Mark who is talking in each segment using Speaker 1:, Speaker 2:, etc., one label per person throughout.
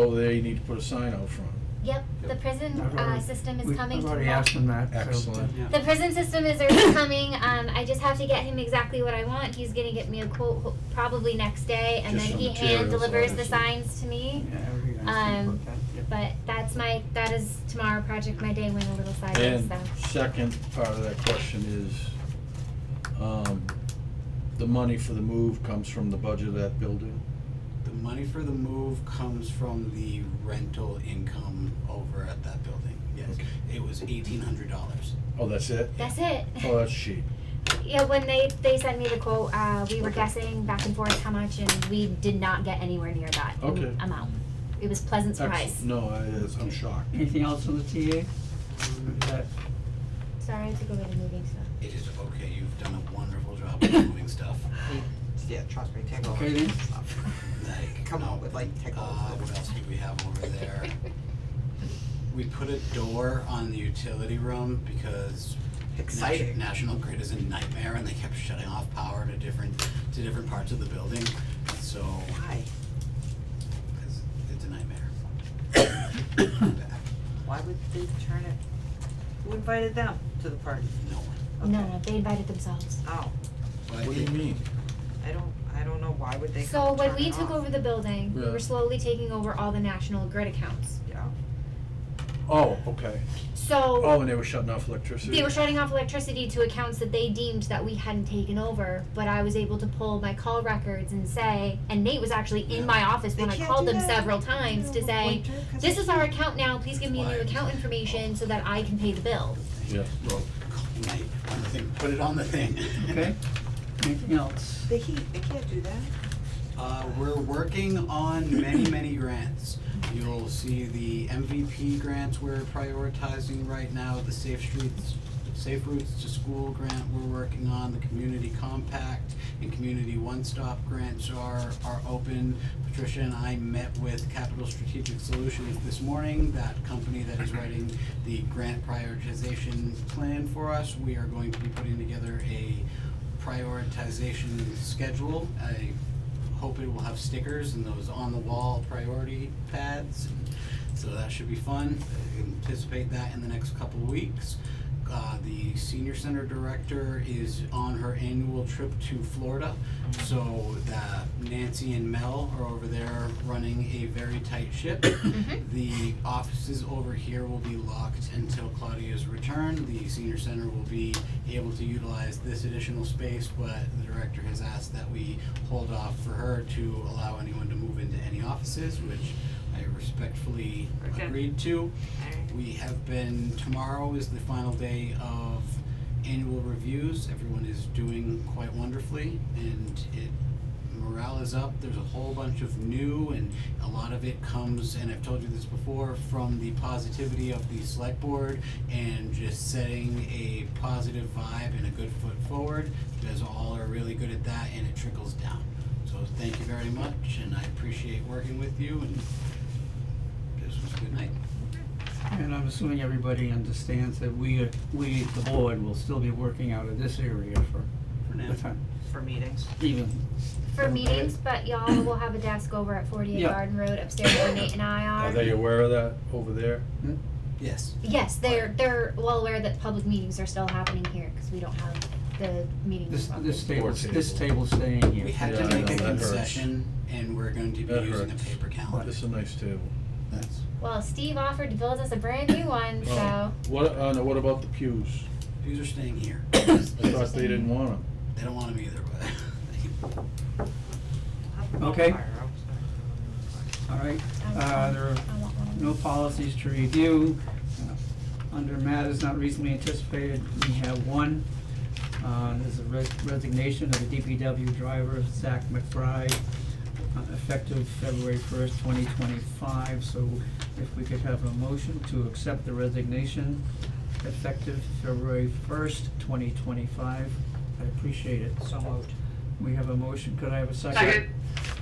Speaker 1: Oh, there, you need to put a sign out front.
Speaker 2: Yep, the prison,
Speaker 3: I've
Speaker 2: uh,
Speaker 3: already-
Speaker 2: system is
Speaker 3: we-
Speaker 2: coming
Speaker 3: I've
Speaker 2: to
Speaker 3: already
Speaker 2: Wal-
Speaker 3: asked him that, so.
Speaker 1: Excellent.
Speaker 3: yeah.
Speaker 2: The prison system is already coming. Um, I just have to get him exactly what I want. He's gonna get me a quote ho- probably next day, and
Speaker 1: Just
Speaker 2: then
Speaker 1: some
Speaker 2: he hand
Speaker 1: materials,
Speaker 2: delivers the
Speaker 1: obviously.
Speaker 2: signs to me.
Speaker 3: Yeah, we can ask him
Speaker 2: Um,
Speaker 3: about that, yeah.
Speaker 2: But that's my that is tomorrow project. My day went a little
Speaker 1: And
Speaker 2: sideways, so
Speaker 1: second part of that question is, um, the money for the move comes from the budget of that building?
Speaker 4: The money for the move comes from the rental income over at that building, yes.
Speaker 1: Okay.
Speaker 4: It was eighteen hundred dollars.
Speaker 1: Oh, that's it?
Speaker 2: that's it.
Speaker 1: Oh, that's cheap.
Speaker 2: yeah, when they they sent me the quote, uh, we were
Speaker 4: Okay.
Speaker 2: guessing back and forth how much, and we did not get anywhere near that
Speaker 1: Okay.
Speaker 2: amount. It was pleasant surprise.
Speaker 1: Excellent. No, I, it's- I'm shocked.
Speaker 3: Anything else on the TA? Um, that-
Speaker 2: Sorry, I have to go to the meeting. So.
Speaker 4: It is okay, you've done a wonderful job of moving stuff.
Speaker 5: Yeah, trust me, take all
Speaker 3: Okay,
Speaker 5: this
Speaker 3: then.
Speaker 5: stuff.
Speaker 4: Like,
Speaker 5: Come
Speaker 4: no,
Speaker 5: on, with, like, take all
Speaker 4: Uh,
Speaker 5: of
Speaker 4: what
Speaker 5: it.
Speaker 4: else do we have over there? We put a door on the utility room because Nat-
Speaker 5: Exciting.
Speaker 4: National Grid is a nightmare and they kept shutting off power to different, to different parts of the building. So
Speaker 5: Why?
Speaker 4: it's, it's a nightmare.
Speaker 5: Why would they turn it? Who invited them to the party?
Speaker 4: No one.
Speaker 5: Okay.
Speaker 2: No, no, they invited themselves.
Speaker 5: Oh,
Speaker 4: But I
Speaker 1: What do you
Speaker 4: think-
Speaker 1: mean?
Speaker 5: I don't, I don't know, why would they
Speaker 2: So
Speaker 5: come turn
Speaker 2: when we
Speaker 5: it
Speaker 2: took
Speaker 5: off?
Speaker 2: over the building, we
Speaker 1: Yeah.
Speaker 2: were slowly taking over all the National Grid accounts.
Speaker 5: Yeah,
Speaker 1: Oh, okay.
Speaker 2: So
Speaker 1: Oh, and they were shutting off electricity?
Speaker 2: they were shutting off electricity to accounts that they deemed that we hadn't taken over, but I was able to pull my call records and say, and Nate was actually in
Speaker 4: Yeah.
Speaker 2: my office when
Speaker 5: They
Speaker 2: I
Speaker 5: can't
Speaker 2: called
Speaker 5: do
Speaker 2: them
Speaker 5: that.
Speaker 2: several times to say, this is our account now, please give me a new
Speaker 4: Why?
Speaker 2: account information so that I can pay the bill.
Speaker 1: Yeah.
Speaker 4: Well, call Nate on the thing, put it on the thing.
Speaker 3: Okay, anything else?
Speaker 5: The heat, they can't do that.
Speaker 4: Uh, we're working on many, many grants. You'll see the MVP grants we're prioritizing right now, the Safe Streets, Safe Routes to School grant we're working on, the Community Compact and Community One Stop grants are, are open. Patricia and I met with Capital Strategic Solutions this morning, that company that is writing the grant prioritization plan for us. We are going to be putting together a prioritization schedule, a hope it will have stickers and those on the wall priority pads. and So that should be fun. Anticipate that in the next couple of weeks. Uh, the senior center director is on her annual trip to Florida. So that Nancy and Mel are over there running a very tight ship. The offices over here will be locked until Claudia's return. The senior center will be able to utilize this additional space, but the director has asked that we hold off for her to allow anyone to move into any offices, which I respectfully
Speaker 5: Okay.
Speaker 4: agreed to.
Speaker 5: Alright.
Speaker 4: We have been, tomorrow is the final day of annual reviews. Everyone is doing quite wonderfully and it, morale is up. There's a whole bunch of new and a lot of it comes, and I've told you this before, from the positivity of the select board and just setting a positive vibe and a good foot forward. You guys all are really good at that and it trickles down. So thank you very much and I appreciate working with you and this was a good night.
Speaker 3: And I'm assuming everybody understands that we, are- we, the board, will still be working out of this area for
Speaker 4: For now.
Speaker 3: the time,
Speaker 5: For meetings.
Speaker 3: even.
Speaker 2: For
Speaker 3: Okay.
Speaker 2: meetings, but y'all will have a desk over at 48
Speaker 3: Yeah.
Speaker 2: Garden Road upstairs where Nate and I
Speaker 1: Are they aware of that over there?
Speaker 4: Yes.
Speaker 2: Yes, they're they're well aware that public meetings are still happening here because we don't have the meetings.
Speaker 3: This, this
Speaker 1: Board
Speaker 3: table, this
Speaker 1: table.
Speaker 3: table staying here.
Speaker 4: We had to
Speaker 1: Yeah, I
Speaker 4: make
Speaker 1: know,
Speaker 4: a
Speaker 1: that hurts.
Speaker 4: concession, and we're going to be
Speaker 1: That
Speaker 4: using a
Speaker 1: hurts.
Speaker 4: paper calendar.
Speaker 1: It's a nice table.
Speaker 4: That's,
Speaker 2: Well, Steve offered to build us a brand new one, so
Speaker 1: What, uh, no, what about the pews?
Speaker 4: these are staying here.
Speaker 1: I
Speaker 4: They
Speaker 1: thought they didn't want them.
Speaker 4: don't want them either, but
Speaker 3: Okay.
Speaker 5: Fire, I'm sorry.
Speaker 3: All right,
Speaker 2: I want
Speaker 3: uh,
Speaker 2: one.
Speaker 3: there are
Speaker 2: um, I want one.
Speaker 3: no policies to review. Uh, Under matters not reasonably anticipated, we have one. Uh, there's a res- resignation of the DPW driver, Zach McBride, uh, effective February first, twenty twenty-five. So if we could have a motion to accept the resignation effective February first, twenty twenty-five, I appreciate it.
Speaker 5: So moved.
Speaker 3: We have a motion, could I have a second?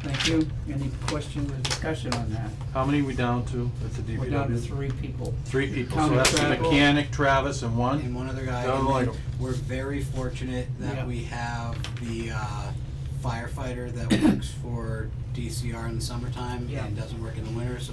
Speaker 3: Thank you. Any questions or discussion on that?
Speaker 6: How many we down to at the DPW?
Speaker 3: We're down to three people.
Speaker 6: Three people, so
Speaker 3: Counting
Speaker 6: that's the
Speaker 3: Travis.
Speaker 6: mechanic, Travis, and
Speaker 4: and
Speaker 6: one?
Speaker 4: one other guy.
Speaker 6: Don't
Speaker 4: and
Speaker 6: like
Speaker 4: then
Speaker 6: 'em.
Speaker 4: We're very fortunate
Speaker 3: Yeah.
Speaker 4: that we have the uh, firefighter that works for DCR in the summertime
Speaker 5: Yeah.
Speaker 4: and doesn't work in the winter, so